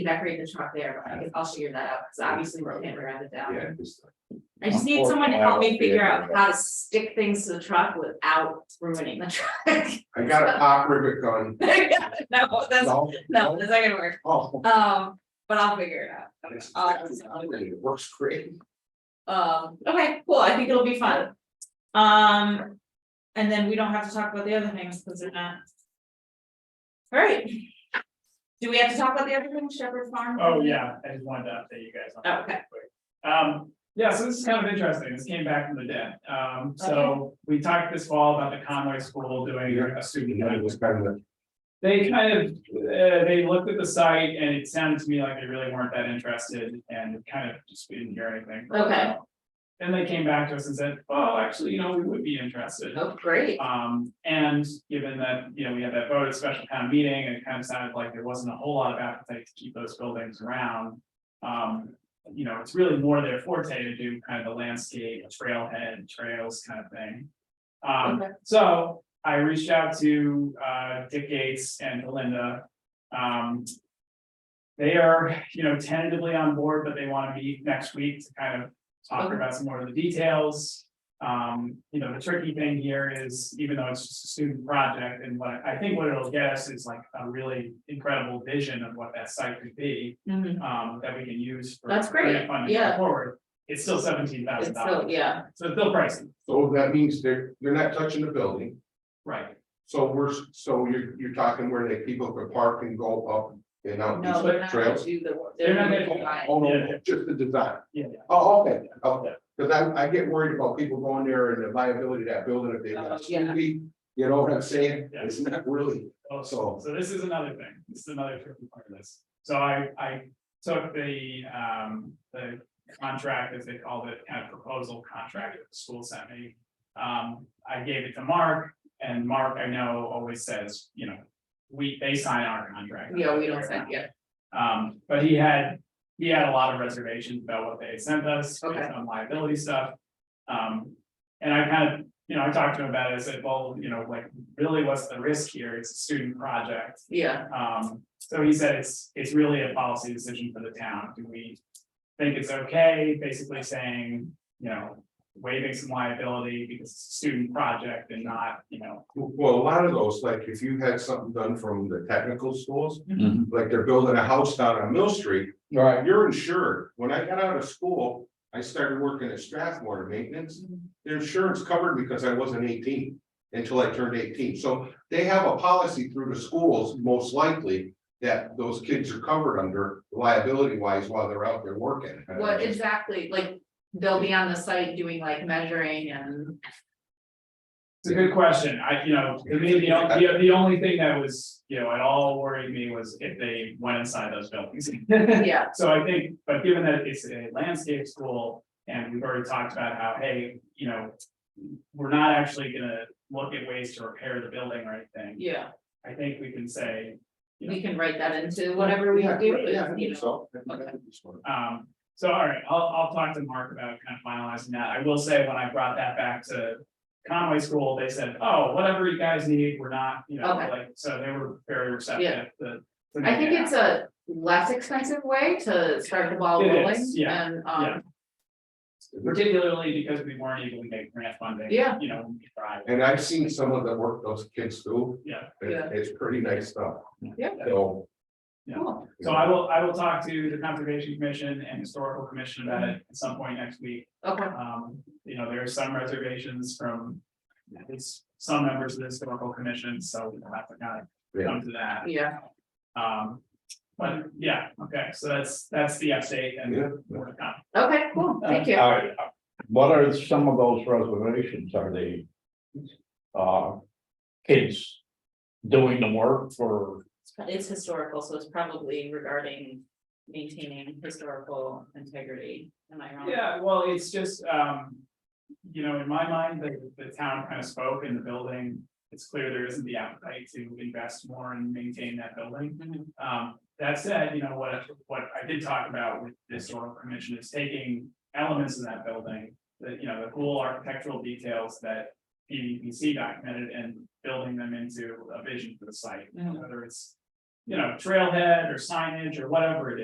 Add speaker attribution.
Speaker 1: decorate the truck there, but I guess I'll figure that out, because obviously we can't round it down.
Speaker 2: Yeah, just-
Speaker 1: I just need someone to help me figure out
Speaker 2: Unfortunately, I
Speaker 1: how to stick things to the truck without ruining the truck.
Speaker 2: I got a hot rivet gun.
Speaker 1: No, that's,
Speaker 2: No,
Speaker 1: no, that's not gonna work,
Speaker 2: Oh.
Speaker 1: um, but I'll figure it
Speaker 2: It's-
Speaker 1: out.
Speaker 2: it's-
Speaker 1: I'll-
Speaker 2: It works great.
Speaker 1: Um, okay, cool, I think it'll be fun. Um, and then we don't have to talk about the other things, because they're not. Alright. Do we have to talk about the other thing, Shepherd Farm?
Speaker 3: Oh, yeah, I just wanted to update you guys on that.
Speaker 1: Okay.
Speaker 3: quick. Um, yeah, so this is kind of interesting, this came back from the dead, um, so we talked this fall about the Conway School doing a
Speaker 2: You
Speaker 3: student.
Speaker 2: know, it was kind of,
Speaker 3: They kind of, uh, they looked at the site and it sounded to me like they really weren't that interested and kind of just we didn't hear anything. for a
Speaker 1: Okay.
Speaker 3: while. Then they came back to us and said, well, actually, you know, we would be interested.
Speaker 1: Oh, great,
Speaker 3: Um, and given that, you know, we had that vote at special town meeting, and it kind of sounded like there wasn't a whole lot of appetite to keep those buildings around. Um, you know, it's really more their forte to do kind of the landscape, trailhead, trails kind of thing. Um,
Speaker 1: Okay.
Speaker 3: so I reached out to, uh, Dick Gates and Belinda. Um, they are, you know, tentatively on board, but they want to meet next week to kind of talk
Speaker 1: Okay.
Speaker 3: about some more of the details. Um, you know, the tricky thing here is, even though it's just a student project, and what I I think what it'll get us is like a really incredible vision of what that site could be.
Speaker 1: Mhm.
Speaker 3: Um, that we can use for.
Speaker 1: That's great,
Speaker 3: grant funding
Speaker 1: yeah.
Speaker 3: Forward, it's still seventeen thousand
Speaker 1: it's still,
Speaker 3: dollars,
Speaker 1: yeah,
Speaker 3: so it's still pricey,
Speaker 2: so that means they're, they're not touching the building,
Speaker 3: right?
Speaker 2: so we're, s- so you're, you're talking where they people could park and go up and out
Speaker 1: no,
Speaker 2: these
Speaker 1: they're not gonna
Speaker 2: trails.
Speaker 1: do the.
Speaker 3: They're not
Speaker 1: gonna
Speaker 3: gonna-
Speaker 1: do it.
Speaker 2: Oh, no,
Speaker 3: Yeah.
Speaker 2: just the design,
Speaker 3: Yeah,
Speaker 2: oh, okay, okay, because I, I get worried about people going there and the liability of that building if they.
Speaker 1: Oh,
Speaker 2: let
Speaker 1: yeah.
Speaker 2: You know what I'm saying,
Speaker 3: Yeah.
Speaker 2: it's not really,
Speaker 3: Oh,
Speaker 2: So-
Speaker 3: so, so this is another thing, this is another tricky part of this. So I, I took the, um, the contract, as they called it, kind of proposal contract that the school sent me. Um, I gave it to Mark, and Mark, I know, always says, you know, we, they sign our contract.
Speaker 1: Yeah, we don't send, yeah,
Speaker 3: Um, but he had, he had a lot of reservations about what they had sent us, based
Speaker 1: Okay.
Speaker 3: on liability stuff. Um, and I kind of, you know, I talked to him about it, I said, well, you know, like, really, what's the risk here? It's a student project.
Speaker 1: yeah,
Speaker 3: Um, so he said it's, it's really a policy decision for the town. Do we think it's okay, basically saying, you know, waiving some liability because it's a student project and not, you know.
Speaker 2: well, a lot of those, like if you had something done from the technical schools.
Speaker 4: Mhm.
Speaker 2: like they're building a house down on Mill Street.
Speaker 4: Right.
Speaker 2: You're insured. When I got out of school, I started working at Strathmore Maintenance. Their insurance covered because I wasn't eighteen until I turned eighteen. So they have a policy through the schools, most likely. That those kids are covered under liability wise while they're out there working.
Speaker 1: what exactly, like, they'll be on the site doing like measuring and,
Speaker 3: It's a good question. I, you know, to me, the, the, the only thing that was, you know, at all worried me was if they went inside those buildings.
Speaker 1: yeah,
Speaker 3: So I think, but given that it's a landscape school and we've already talked about how, hey, you know. We're not actually gonna look at ways to repair the building or anything.
Speaker 1: yeah,
Speaker 3: I think we can say,
Speaker 1: we can write that into whatever we
Speaker 2: Yeah,
Speaker 1: do,
Speaker 2: yeah, I
Speaker 1: you
Speaker 2: think
Speaker 1: know.
Speaker 2: so. I think that's what-
Speaker 3: um, so all right, I'll, I'll talk to Mark about kind of finalizing that. I will say when I brought that back to. Conway School, they said, oh, whatever you guys need, we're not, you know,
Speaker 1: Okay.
Speaker 3: like, so they were very
Speaker 1: Yeah.
Speaker 3: receptive to. to
Speaker 1: I think
Speaker 3: making
Speaker 1: it's
Speaker 3: that.
Speaker 1: a less expensive way to start the ball
Speaker 3: It is,
Speaker 1: rolling
Speaker 3: yeah,
Speaker 1: and,
Speaker 3: yeah.
Speaker 1: um,
Speaker 3: Particularly because we weren't able to get grant funding.
Speaker 1: Yeah.
Speaker 3: You know, when we tried.
Speaker 2: And I've seen some of the work those kids do.
Speaker 3: Yeah.
Speaker 2: It-
Speaker 1: Yeah.
Speaker 2: It's pretty nice stuff.
Speaker 1: Yeah.
Speaker 2: So.
Speaker 3: Yeah.
Speaker 1: cool,
Speaker 3: So I will, I will talk to the Conservation Commission and Historical Commission about it at some point next week.
Speaker 1: okay,
Speaker 3: Um, you know, there are some reservations from at least some members of the Historical Commission, so we'll have to kind of come to that.
Speaker 1: yeah,
Speaker 3: Um, but yeah, okay, so that's, that's the update and
Speaker 2: Yeah.
Speaker 3: more to come.
Speaker 1: okay, cool, thank
Speaker 2: uh,
Speaker 1: you.
Speaker 4: Are- What are some of those reservations? Are they? Uh, kids doing the work for,
Speaker 1: It's historical, so it's probably regarding maintaining historical integrity, am I wrong?
Speaker 3: Yeah, well, it's just, um, you know, in my mind, the, the town kind of spoke in the building. It's clear there isn't the appetite to invest more and maintain that building.
Speaker 1: Mhm.
Speaker 3: Um, that said, you know, what, what I did talk about with this historical commission is taking elements in that building. The, you know, the cool architectural details that PVPC documented and building them into a vision for the site.
Speaker 1: Mhm.
Speaker 3: Whether it's you know, trailhead or signage or whatever it is.